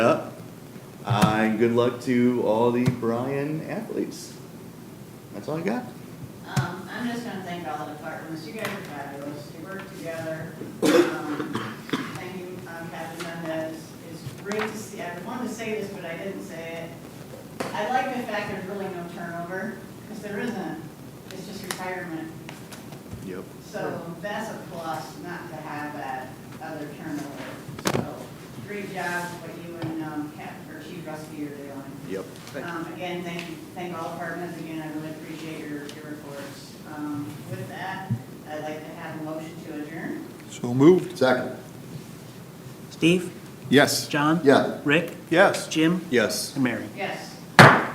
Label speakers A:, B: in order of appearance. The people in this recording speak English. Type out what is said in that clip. A: and good luck to all the Bryan athletes. That's all I got.
B: Um, I'm just gonna thank all the departments, you guys are fabulous, you work together. Um, Thank you, um, Captain Mendez, it's great to see, I wanted to say this, but I didn't say it. I like the fact there's really no turnover, because there isn't, it's just retirement.
A: Yep.
B: So that's a plus, not to have that other turnover. So, great job, what you and, um, Cap, or Chief Rusty are doing.
A: Yep.
B: Um, again, thank, thank all departments, again, I really appreciate your, your reports. Um, with that, I'd like to have a motion to adjourn.
C: So moved.
D: Second.
E: Steve,
C: Yes.
E: John?
D: Yeah.
E: Rick,
C: Yes.
E: Jim,
A: Yes.
E: and Mary.
B: Yes.